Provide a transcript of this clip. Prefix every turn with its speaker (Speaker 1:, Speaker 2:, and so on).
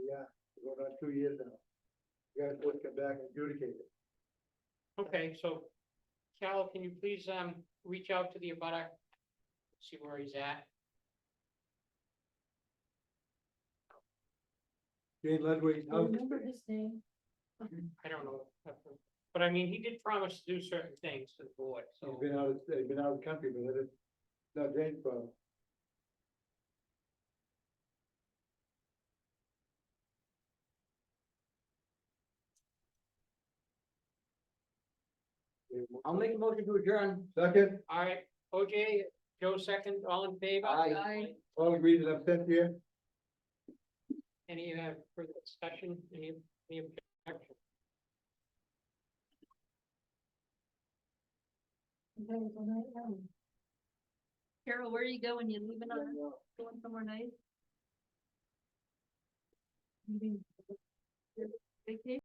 Speaker 1: two years now. You guys supposed to come back and adjudicate it.
Speaker 2: Okay, so Cal, can you please, um, reach out to the abutter? See where he's at.
Speaker 1: Jane Ludwig's house,
Speaker 3: Remember his name?
Speaker 2: I don't know. But I mean, he did promise to do certain things to the board,
Speaker 1: he's
Speaker 2: so.
Speaker 1: been out, of- he's been out of the country, but it's not Jane's problem.
Speaker 4: I'll make a motion to adjourn.
Speaker 1: Second,
Speaker 2: All right, OJ, Joe second, all in favor?
Speaker 4: Aye.
Speaker 3: Aye.
Speaker 1: all agreed and absent here?
Speaker 2: Any uh, further discussion, any, any objection?
Speaker 3: Carol, where are you going? You leaving on, going somewhere nice?